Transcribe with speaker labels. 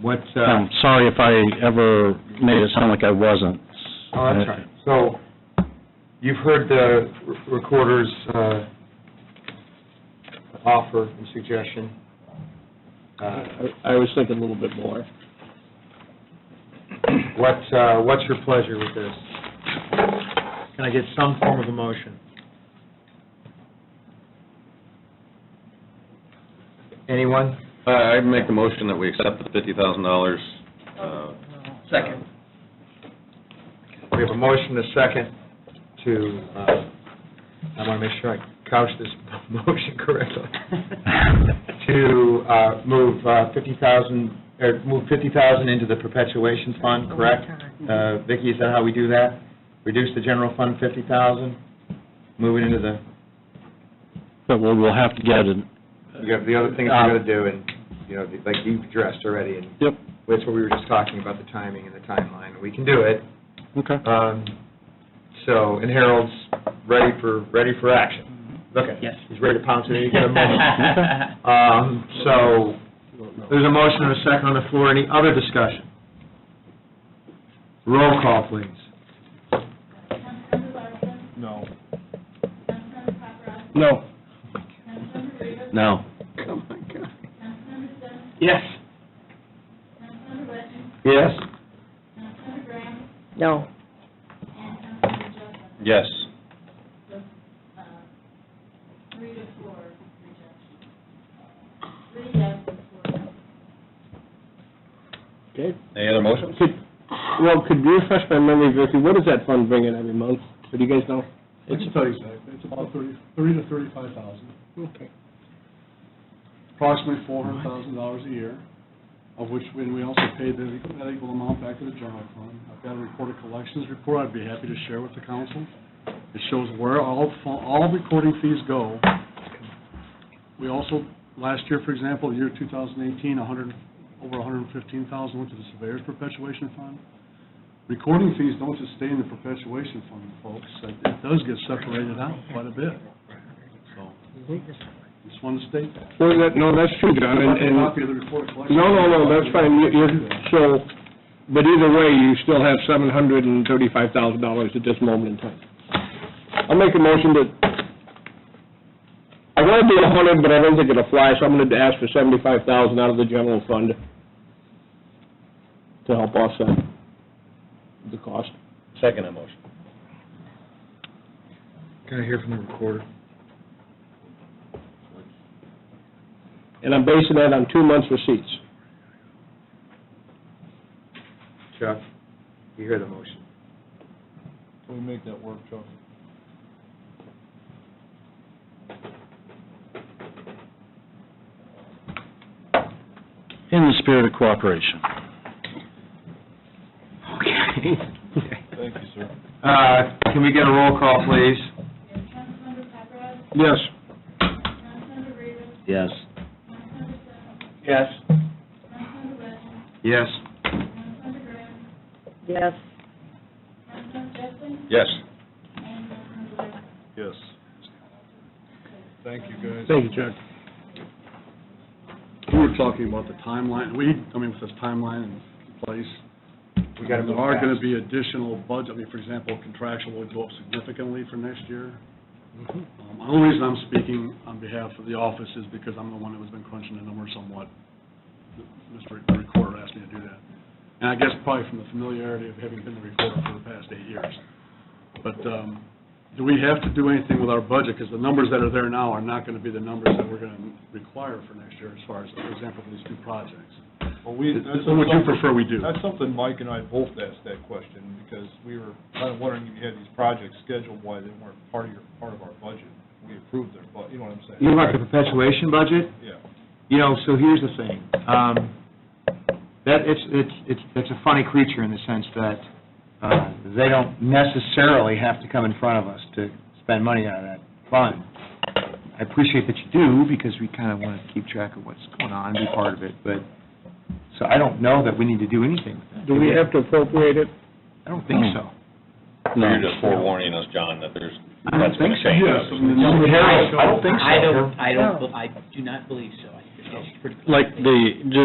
Speaker 1: What, uh,
Speaker 2: I'm sorry if I ever made it sound like I wasn't. Uh,
Speaker 1: oh, that's right. So you've heard the recorder's uh, offer and suggestion. Uh,
Speaker 3: I I was thinking a little bit more.
Speaker 1: What, uh, what's your pleasure with this? Can I get some form of a motion? Anyone?
Speaker 4: I make the motion that we accept the fifty thousand dollars. Second.
Speaker 1: We have a motion, a second, to, uh, I want to make sure I couch this motion correctly, to uh, move uh, 50,000, or move 50,000 into the perpetuation fund, correct? Uh, Vicki, is that how we do that? Reduce the general fund 50,000, move it into the,
Speaker 2: But we'll, we'll have to get it,
Speaker 1: you got the other things you got to do, and, you know, like you've addressed already, and
Speaker 2: yep,
Speaker 1: that's what we were just talking about, the timing and the timeline. We can do it,
Speaker 2: okay.
Speaker 1: Um, So, and Harold's ready for, ready for action. Okay.
Speaker 5: Yes.
Speaker 1: He's ready to pounce at any given moment. Um, So, there's a motion and a second on the floor. Any other discussion? Roll call, please.
Speaker 6: Councilmember Larson,
Speaker 3: No.
Speaker 6: Councilmember Paparad,
Speaker 2: No.
Speaker 6: Councilmember Davis,
Speaker 2: No.
Speaker 6: Councilmember Sims,
Speaker 3: Yes.
Speaker 6: Councilmember Witten,
Speaker 1: Yes.
Speaker 6: Councilmember Graham,
Speaker 7: No.
Speaker 6: and Councilmember Jessup.
Speaker 4: Yes.
Speaker 6: So, uh, Three to four rejection. Three yes and four no.
Speaker 3: Okay.
Speaker 4: Any other motions?
Speaker 3: Could- Well, could you refresh my memory, Vicki, what does that fund bring in every month? Do you guys know?
Speaker 8: It's about exactly, it's about thirty, thirty to thirty-five thousand,
Speaker 3: Okay.
Speaker 8: approximately four hundred thousand dollars a year, of which, when we also pay the, that equal amount back to the general fund. I've got a recorded collections report I'd be happy to share with the council. It shows where all, fu- all recording fees go. We also, last year, for example, year two thousand eighteen, a hundred, over hundred and fifteen thousand went to the surveyor's perpetuation fund. Recording fees don't just stay in the perpetuation fund, folks, it it does get separated out quite a bit, so. Just wanted to state that.
Speaker 3: Well, that, no, that's true, John, and, and,
Speaker 8: Copy of the report collection.
Speaker 3: no, no, no, that's fine, you, you, so, but either way, you still have seven hundred and thirty-five thousand dollars at this moment in time. I'll make a motion that, I wanna do a hundred, but I don't think it'll fly, so I'm gonna ask for seventy-five thousand out of the general fund to help offset the cost.
Speaker 4: Second motion.
Speaker 1: Can I hear from the recorder?
Speaker 3: And I'm basing that on two months' receipts.
Speaker 1: Chuck, you hear the motion.
Speaker 8: Can we make that work, Chuck?
Speaker 2: In the spirit of cooperation.
Speaker 8: Thank you, sir.
Speaker 1: Uh, Can we get a roll call, please?
Speaker 6: We have Councilmember Paparad,
Speaker 3: Yes.
Speaker 6: Councilmember Reavis,
Speaker 2: Yes.
Speaker 6: Councilmember Sims,
Speaker 3: Yes.
Speaker 6: Councilmember Witten,
Speaker 1: Yes.
Speaker 6: Councilmember Graham,
Speaker 7: Yes.
Speaker 6: Councilmember Justin,
Speaker 4: Yes.
Speaker 6: and Councilmember Witten.
Speaker 8: Yes. Thank you, guys.
Speaker 3: Thank you, Chuck.
Speaker 8: You were talking about the timeline, we, I mean, with this timeline in place,
Speaker 1: We got to move
Speaker 8: There are
Speaker 1: fast.
Speaker 8: going to be additional budget, I mean, for example, contractual would go up significantly for next year.
Speaker 1: Mm-hmm.
Speaker 8: Um, The only reason I'm speaking on behalf of the office is because I'm the one that has been crunching the numbers somewhat. Mr. Recorder asked me to do that. And I guess probably from the familiarity of having been the recorder for the past eight years. But um, do we have to do anything with our budget? Because the numbers that are there now are not going to be the numbers that we're going to require for next year as far as, for example, for these two projects.
Speaker 9: Well, we, that's
Speaker 8: So would you
Speaker 9: something,
Speaker 8: prefer we do?
Speaker 9: that's something Mike and I both asked that question, because we were kind of wondering if you had these projects scheduled, why they weren't part of your, part of our budget. We approved their, bu- you know what I'm saying?
Speaker 1: You like the perpetuation budget?
Speaker 9: Yeah.
Speaker 1: You know, so here's the thing, um, that, it's, it's, it's, it's a funny creature in the sense that, uh, they don't necessarily have to come in front of us to spend money out of that fund. I appreciate that you do, because we kind of want to keep track of what's going on, be part of it, but, so I don't know that we need to do anything with that.
Speaker 3: Do we have to appropriate it?
Speaker 1: I don't think so.
Speaker 4: You're just forewarning us, John, that there's,
Speaker 1: I don't
Speaker 4: that's going
Speaker 1: think so.
Speaker 4: to change.
Speaker 8: Yes, I mean, the numbers-
Speaker 1: Harold, I don't think so.
Speaker 5: I don't, I don't, I do not believe so. I think it's pretty-
Speaker 2: Like the, ju-